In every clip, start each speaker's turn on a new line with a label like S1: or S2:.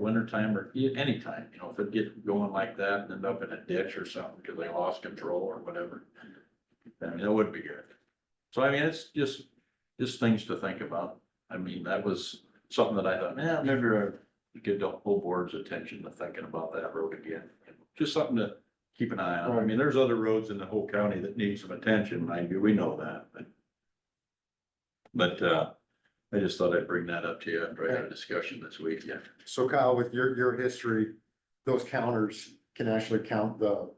S1: winter time or e- anytime, you know, if it gets going like that and end up in a ditch or something because they lost control or whatever. I mean, that would be good. So I mean, it's just, just things to think about. I mean, that was something that I thought, man, maybe I get the whole board's attention to thinking about that road again. Just something to keep an eye on. I mean, there's other roads in the whole county that need some attention, mind you, we know that, but. But, uh, I just thought I'd bring that up to you after I had a discussion this week, yeah.
S2: So Kyle, with your, your history, those counters can actually count the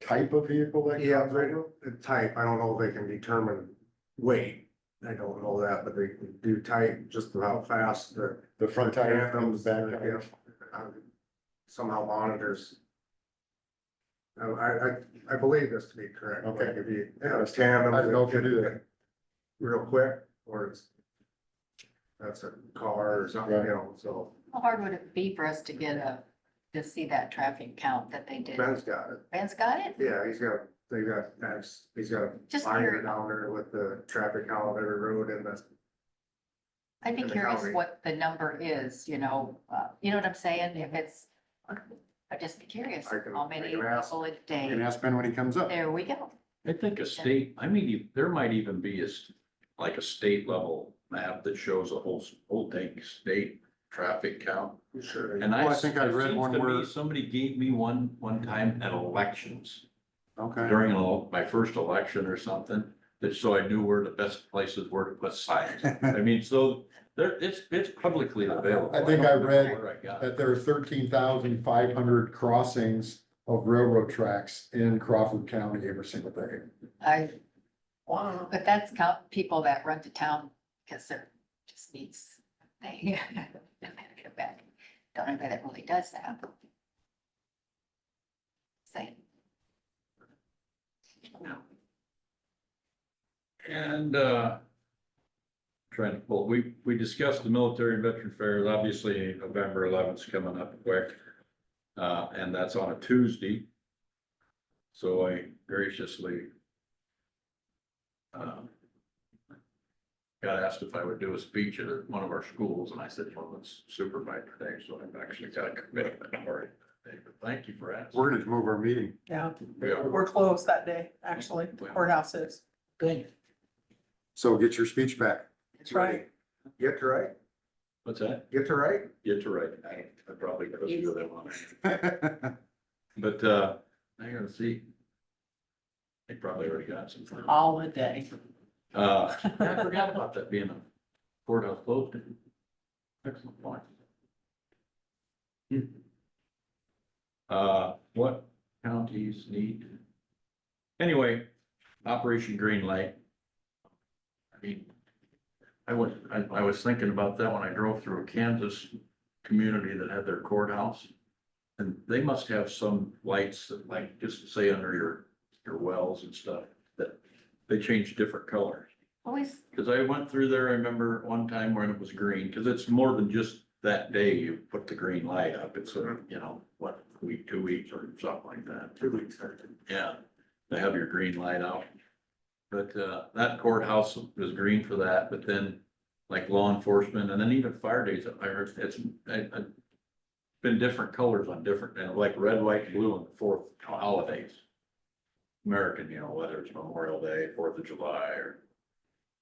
S2: type of vehicle that.
S3: Yeah, they the type, I don't know if they can determine weight, I don't know that, but they can do type, just how fast the.
S2: The front tire comes
S3: tandems,
S2: back.
S3: yeah, um, Somehow monitors. I, I, I believe this to be correct, like
S2: Okay.
S3: if you have tandem.
S2: I don't know if you do that.
S3: Real quick, or it's. That's a car or something, you know, so
S4: How hard would it be for us to get a, to see that traffic count that they did?
S3: Ben's got it,
S4: Ben's got it?
S3: yeah, he's got, they got, that's- he's got a
S4: Just
S3: binder
S4: curious.
S3: down there with the traffic count of every road and the
S4: I'd be
S3: and the
S4: curious
S3: calorie.
S4: what the number is, you know, uh, you know what I'm saying? If it's, I'd just be curious,
S3: I can-
S4: how
S3: I
S4: many
S3: can ask.
S4: people a
S2: You can
S4: day?
S2: ask Ben when he comes up.
S4: There we go.
S1: I think a state, I mean, you- there might even be a, s- like a state level map that shows a whole, s- whole dang state traffic count.
S3: I'm Sure.
S1: And I.
S2: Well, I think I
S1: it
S2: read
S1: seems
S2: one
S1: to me
S2: where-
S1: Somebody gave me one, one time at elections,
S2: Okay.
S1: during an el- my first election or something, that so I knew where the best places were to put signs. I mean, so there, it's, it's publicly available.
S2: I think I
S1: don't know
S2: read
S1: where I got it.
S2: That there are thirteen thousand five hundred crossings of railroad tracks in Crawford County every single day.
S4: I, but that's count people that run to town because they're just needs, they, don't have to go back. Don't anybody that really does that. Same.
S1: And, uh, trying to pull, we, we discussed the military and veteran fairs, obviously November eleventh's coming up quick. Uh, and that's on a Tuesday. So I graciously um, got asked if I would do a speech at one of our schools and I said, well, let's supervise today, so I've actually got a commitment for it. But Thank you for asking.
S2: We're gonna move our meeting.
S5: Yeah,
S1: We are-
S5: we're closed that day, actually, The courthouse is.
S2: So get your speech back.
S5: That's right.
S3: Get to right,
S1: What's that?
S3: get to right.
S1: Get to writing. I I probably could do that one. But, uh, I gotta see. They probably already got some. for-
S5: All the day.
S1: Uh, I forgot about that being a courthouse closed. Excellent point. Uh, what counties need? Anyway, Operation Green Light. I mean, I was, I, I was thinking about that when I drove through a Kansas community that had their courthouse. And they must have some lights that like, just say under your, your wells and stuff, that they change different colors.
S4: Always
S1: Cause I went through there, I remember one time when it was green, cause it's more than just that day you put the green light up, it's a, you know, what, week, two weeks or something like that. Two weeks. Yeah, to have your green light out. But, uh, that courthouse was green for that, but then like law enforcement and then even fire days, I, re- it's, I, I. Been different colors on different, and like red, white, blue on the fourth holidays. American, you know, whether it's Memorial Day, Fourth of July or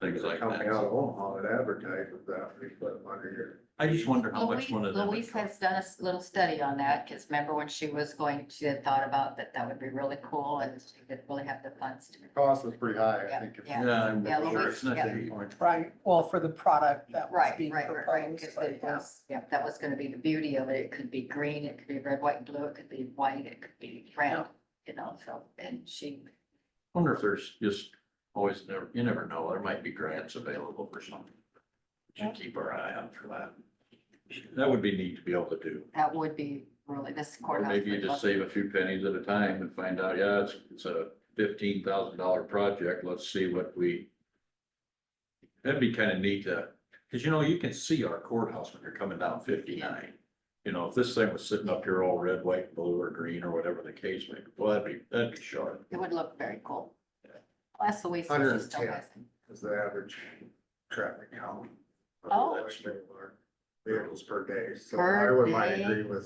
S1: things like
S3: Company out
S1: that.
S3: of Omaha that advertises that, we put them under here.
S1: I just wonder how much
S4: Louise,
S1: one of them. would
S4: Louise
S1: cost.
S4: has done a s- little study on that, because remember when she was going, she had thought about that that would be really cool and she didn't really have the funds to.
S2: Cost was pretty high, I think. if-
S4: Yeah,
S1: Yeah, I'm
S4: Yeah,
S1: sure
S4: Louise,
S1: it's not
S4: yeah.
S1: that easy.
S5: Right, well, for the product that was
S4: Right,
S5: being
S4: right, right, right.
S5: proposed,
S4: 'cause
S5: but
S4: it was- Yeah, that was gonna be the beauty of it. It could be green, it could be red, white, and blue, it could be white, it could be red, you know, so, and she,
S1: Wonder if there's just always, never you never know, there might be grants available for something. We Should keep our eye out for that. That would be neat to be able to do.
S4: that would be really, this
S1: Or
S4: courthouse.
S1: maybe you
S4: would
S1: just
S4: love-
S1: save a few pennies at a time and find out, yeah, it's, it's a fifteen thousand dollar project, let's see what we. That'd be kind of neat to, because you know, you can see our courthouse when you're coming down fifty-nine. You know, if this thing was sitting up here all red, white, blue, or green, or whatever the case may be, well, that'd be, that'd be sharp.
S4: It would look very cool. Plus Louise, she
S3: Hundred and
S4: still
S3: ten.
S4: has. it.
S3: Is the average traffic count. of the
S4: Oh.
S3: election. vehicles per day, so
S4: Per
S3: I would might
S4: day.
S3: agree with